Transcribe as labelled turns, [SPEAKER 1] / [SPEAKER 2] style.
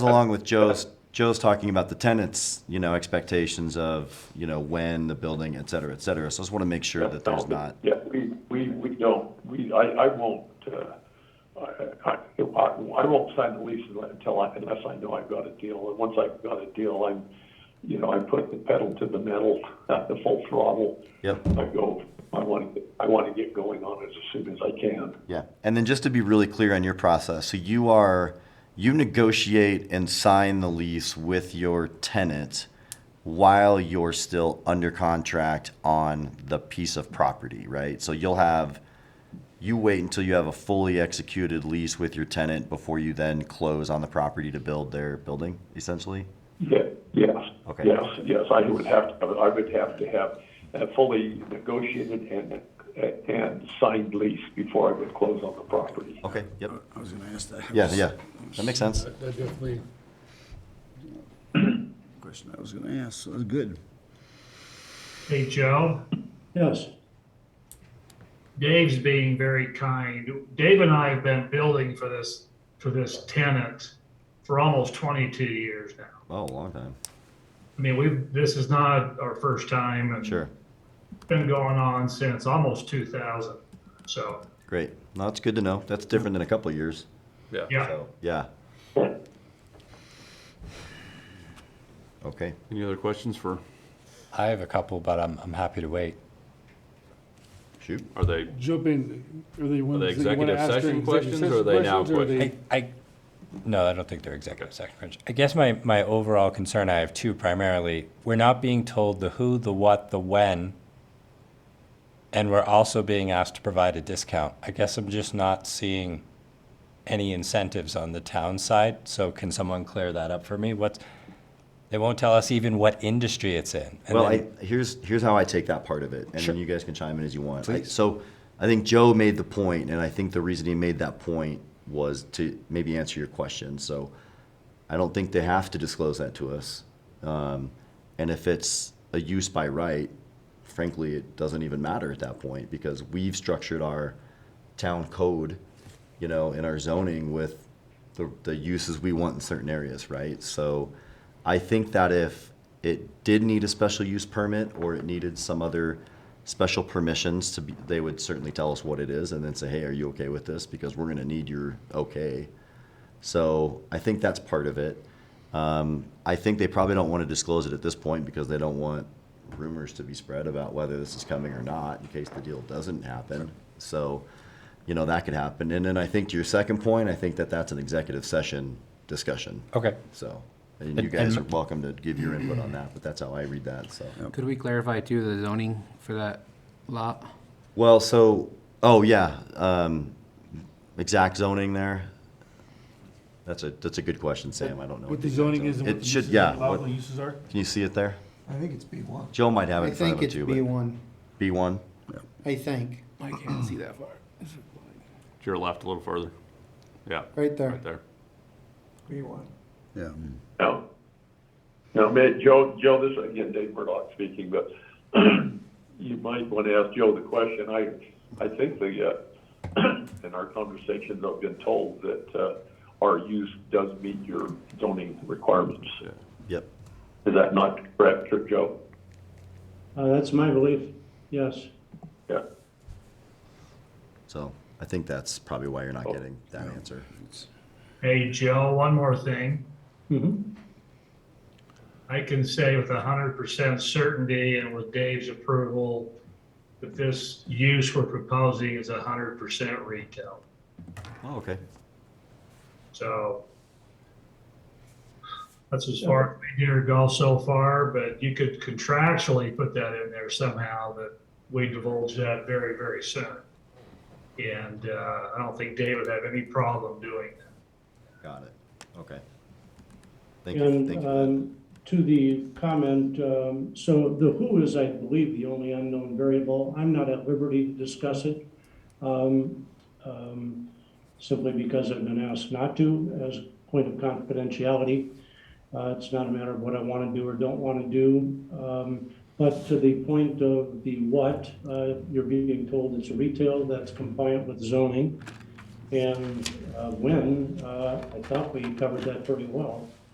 [SPEAKER 1] Along with Joe's, Joe's talking about the tenants, you know, expectations of, you know, when the building, et cetera, et cetera. So I just want to make sure that there's
[SPEAKER 2] No,
[SPEAKER 1] not,
[SPEAKER 2] Yeah, we, we, we don't, we, I, I won't, uh, I, I, I won't sign the lease until I, unless I know I've got a deal. And once I've got a deal, I'm, you know, I put the pedal to the metal, at the full throttle.
[SPEAKER 1] Yep.
[SPEAKER 2] I go, I want to, I want to get going on it as soon as I can.
[SPEAKER 1] yeah. And then just to be really clear on your process, so you are, you negotiate and sign the lease with your tenant while you're still under contract on the piece of property, right? So you'll have, you wait until you have a fully executed lease with your tenant before you then close on the property to build their building, essentially?
[SPEAKER 2] Yeah, yes.
[SPEAKER 1] Okay.
[SPEAKER 2] Yes, yes, I would have to, I would have to have a fully negotiated and, and signed lease before I would close on the property.
[SPEAKER 1] Okay,
[SPEAKER 3] Uh,
[SPEAKER 1] yep.
[SPEAKER 4] I was gonna ask that.
[SPEAKER 1] Yeah, yeah, that makes sense.
[SPEAKER 5] That that definitely,
[SPEAKER 4] Question I was gonna ask, so that's good.
[SPEAKER 6] Hey, Joe.
[SPEAKER 4] Yes.
[SPEAKER 6] Dave's being very kind. Dave and I have been building for this, for this tenant for almost 22 years now.
[SPEAKER 1] Oh, a long time.
[SPEAKER 6] I mean, we've, this is not our first time and
[SPEAKER 1] Sure,
[SPEAKER 6] it's been going on since almost 2000. So,
[SPEAKER 1] great. No, that's good to know. That's different than a couple of years.
[SPEAKER 6] yeah.
[SPEAKER 1] So, yeah. Okay,
[SPEAKER 7] Any other questions for,
[SPEAKER 3] I have a couple, but I'm, I'm happy to wait.
[SPEAKER 1] shoot.
[SPEAKER 7] are they,
[SPEAKER 5] jump in, are they
[SPEAKER 7] are
[SPEAKER 5] ones
[SPEAKER 7] they
[SPEAKER 5] that you wanna
[SPEAKER 7] executive
[SPEAKER 5] ask during
[SPEAKER 7] session
[SPEAKER 5] executive
[SPEAKER 7] questions or are
[SPEAKER 5] session
[SPEAKER 7] they now
[SPEAKER 5] questions, or
[SPEAKER 7] questions?
[SPEAKER 3] I, I, no, I don't think they're executive session. questions. I guess my, my overall concern, I have two primarily. We're not being told the who, the what, the when, and we're also being asked to provide a discount. I guess I'm just not seeing any incentives on the town side, so can someone clear that up for me? What's, they won't tell us even what industry it's in. and
[SPEAKER 1] Well,
[SPEAKER 3] then-
[SPEAKER 1] I, here's, here's how I take that part of it, and then you guys can chime in as you want. I-
[SPEAKER 3] Please.
[SPEAKER 1] So I think Joe made the point, and I think the reason he made that point was to maybe answer your question. So I don't think they have to disclose that to us. Um, and if it's a use by right, frankly, it doesn't even matter at that point because we've structured our town code, you know, in our zoning with the, the uses we want in certain areas, right? So I think that if it did need a special use permit or it needed some other special permissions to be, they would certainly tell us what it is and then say, hey, are you okay with this? Because we're gonna need your okay. So I think that's part of it. Um, I think they probably don't want to disclose it at this point because they don't want rumors to be spread about whether this is coming or not in case the deal doesn't happen. So, you know, that could happen. And then I think to your second point, I think that that's an executive session discussion.
[SPEAKER 3] Okay.
[SPEAKER 1] So, and you guys are welcome to give your input on that, but that's how I read that, so.
[SPEAKER 8] Could we clarify too, the zoning for that lot?
[SPEAKER 1] Well, so, oh, yeah, um, exact zoning there? That's a, that's a good question, Sam, I don't know.
[SPEAKER 5] What the
[SPEAKER 1] exact
[SPEAKER 5] zoning is and what
[SPEAKER 1] It
[SPEAKER 5] the
[SPEAKER 1] should,
[SPEAKER 5] uses,
[SPEAKER 1] yeah. what-
[SPEAKER 5] allowable uses are?
[SPEAKER 1] Can you see it there?
[SPEAKER 9] I think it's B1.
[SPEAKER 1] Joe might have it
[SPEAKER 9] I
[SPEAKER 1] in front of
[SPEAKER 9] think
[SPEAKER 1] him
[SPEAKER 9] it's
[SPEAKER 1] too, but
[SPEAKER 9] B1,
[SPEAKER 1] B1?
[SPEAKER 9] I think,
[SPEAKER 8] I can't see that far.
[SPEAKER 7] to your left a little further? Yeah,
[SPEAKER 9] right there.
[SPEAKER 7] right there.
[SPEAKER 9] B1.
[SPEAKER 4] Yeah.
[SPEAKER 2] No. Now, man, Joe, Joe, this, is, again, Dave Murdoch speaking, but you might want to ask Joe the question. I, I think the, uh, in our conversations, I've been told that, uh, our use does meet your zoning requirements.
[SPEAKER 1] Yep.
[SPEAKER 2] Is that not correct, Joe?
[SPEAKER 10] Uh, That's my belief, yes.
[SPEAKER 2] Yeah.
[SPEAKER 1] So I think that's probably why you're not getting that
[SPEAKER 9] Oh.
[SPEAKER 1] answer.
[SPEAKER 6] Hey, Joe, one more thing.
[SPEAKER 10] Mhm.
[SPEAKER 6] I can say with 100% certainty and with Dave's approval that this use we're proposing is 100% retail.
[SPEAKER 1] Oh, okay.
[SPEAKER 6] So that's as far as we dare go so far, but you could contractually put that in there somehow that we divulge that very, very soon. And uh, I don't think Dave would have any problem doing that.
[SPEAKER 1] Got it. Okay. Thank you, thank
[SPEAKER 10] And
[SPEAKER 1] you.
[SPEAKER 10] um, to the comment, um, so the who is, I believe, the only unknown variable. I'm not at liberty to discuss it, um, um, simply because I've been asked not to as a point of confidentiality. Uh, It's not a matter of what I want to do or don't want to do. Um, But to the point of the what, uh, you're being told it's retail, that's compliant with zoning. and uh, when, uh, I thought we covered that pretty well.